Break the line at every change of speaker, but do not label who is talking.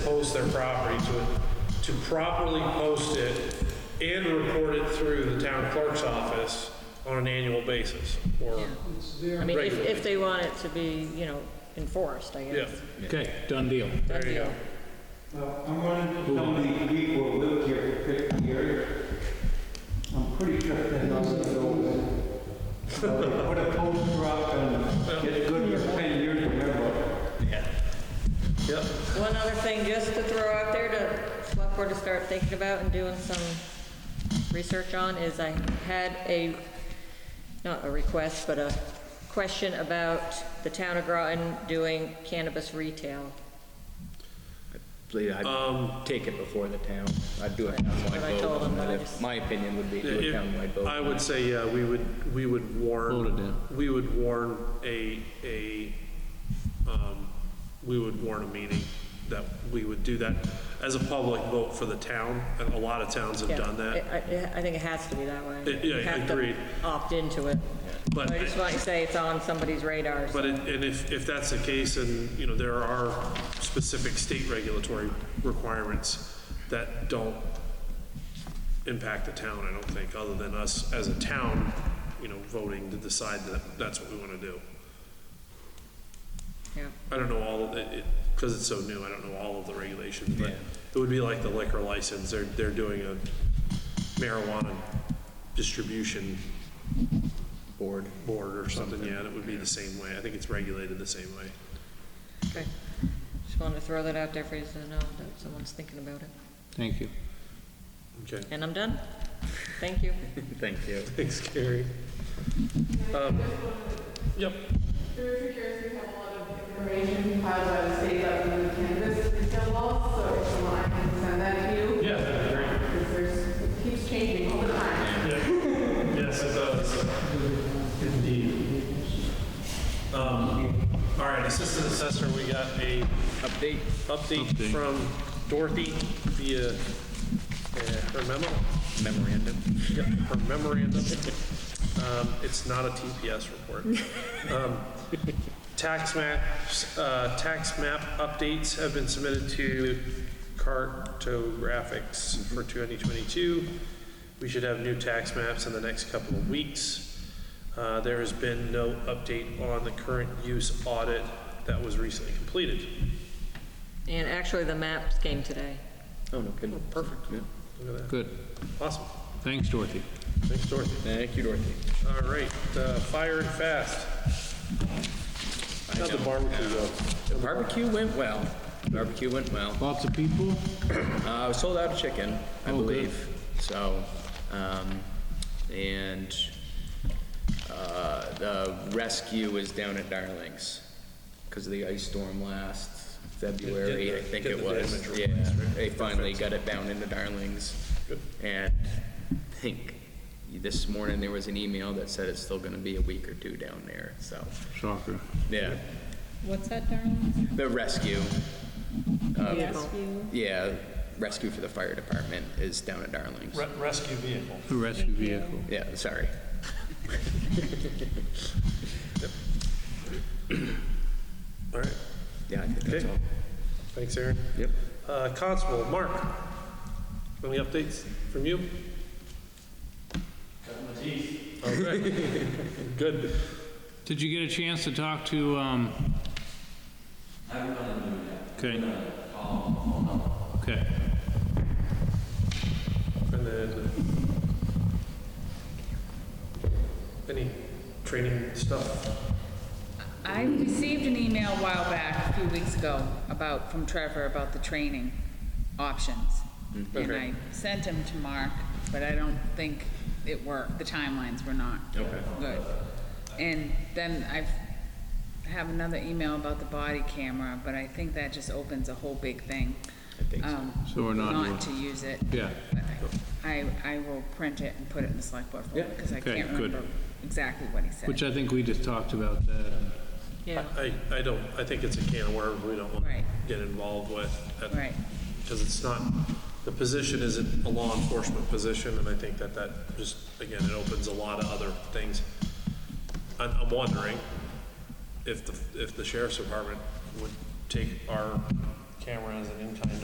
owns their property to, to properly post it and report it through the town clerk's office on an annual basis, or,
I mean, if,
Regularly.
if they want it to be, you know, enforced, I
yeah.
guess.
Okay, done deal.
Done
There you go.
deal.
Well, I'm running to somebody we will live here for 50 years. I'm pretty sure that house is open. So they Put a poster up and get good for 10 years, remember?
Yep,
One other thing just to throw out there to select board to start thinking about and doing some research on is I had a, not a request, but a question about the town of Groton doing cannabis retail.
believe I'd take it before the town. I'd do a
what I
townwide
told
vote
them,
on that.
I
If-
just-
My opinion would be do a townwide
If-
vote.
I
on
would
that.
say, yeah, we would, we would
Vote it
warn,
down.
we would warn a, a, um, we would warn a meeting that we would do that as a public vote for the town, and a lot of towns have
Yeah,
done that.
I, I- I think it has to be that way.
Uh, yeah,
You have to
agreed.
Opt into it.
But
I just want to say it's on somebody's radar.
But, it- and if, if that's the case, and, you know, there are specific state regulatory requirements that don't impact the town, I don't think, other than us as a town, you know, voting to decide that that's what we want to do.
Yeah.
I don't know all, of it, because it's so new, I don't know all of the regulations, but it would be like the liquor license, they're, they're doing a marijuana distribution
Board.
board or something, yeah, and it would be the same way, I think it's regulated the same way.
Okay. Just wanted to throw that out there for you to know that someone's thinking about it.
Thank you.
Okay.
And I'm done. Thank you.
Thank you.
Thanks, Gary. Um, Yep.
Through the years, we have a lot of information compiled by the state government on cannabis retail laws, so if you want, I can send that to you.
Yeah, that'd be great.
Because there's, it keeps changing all the time.
Yes, it does. Indeed. Um, All right, Assistant Assessor, we got a
Update.
update from Dorothy via uh, her memo,
Memorandum.
Yep, her memorandum. Um, It's not a TPS report. Um, Tax maps, uh, tax map updates have been submitted to cartographics for 2022. We should have new tax maps in the next couple of weeks. Uh, There has been no update on the current use audit that was recently completed.
And actually, the maps came today.
Oh, no kidding. Perfect.
Look at
Good.
that. Awesome.
Thanks, Dorothy.
Thanks, Dorothy.
Thank you, Dorothy.
All right, uh, fire and fast. How'd the barbecue go?
Barbecue went well. Barbecue went well.
Lots of people?
Uh, we sold out of chicken, I
Oh, good.
believe. So, um, and, uh, the rescue is down at Darlings because of the ice storm last February, I think
get
it
the
was.
damage
Yeah, they finally got it down into Darlings. And I think this morning there was an email that said it's still gonna be a week or two down there, so,
Shocker.
yeah.
What's that, Darren?
The rescue, uh,
Rescue.
yeah, rescue for the fire department is down at Darlings.
Re- Rescue vehicle.
A rescue vehicle.
Yeah, sorry.
All right,
Yeah, I think that's
Okay.
all.
thanks, Aaron.
Yep.
Uh, Constable, Mark, any updates from you? Okay. Good.
Did you get a chance to talk to, um? I haven't done Okay. Okay.
And then, any training stuff?
I received an email a while back, a few weeks ago, about, from Trevor about the training options. And I sent them to Mark, but I don't think it worked, the timelines were not good. And then I've, I have another email about the body camera, but I think that just opens a whole big thing. I think so.
So we're not doing-
to use it.
Yeah.
But I, I will print it and put it in the select board folder, because I
Okay,
can't
good.
remember exactly what he said.
Which I think we just talked about that.
Yeah.
I, I don't, I think it's a can of worms we don't want to
Right.
get involved with. at-
Right.
Because it's not, the position isn't a law enforcement position, and I think that that just, again, it opens a lot of other things. I'm, I'm wondering if the, if the sheriff's department would take our camera as an in-kind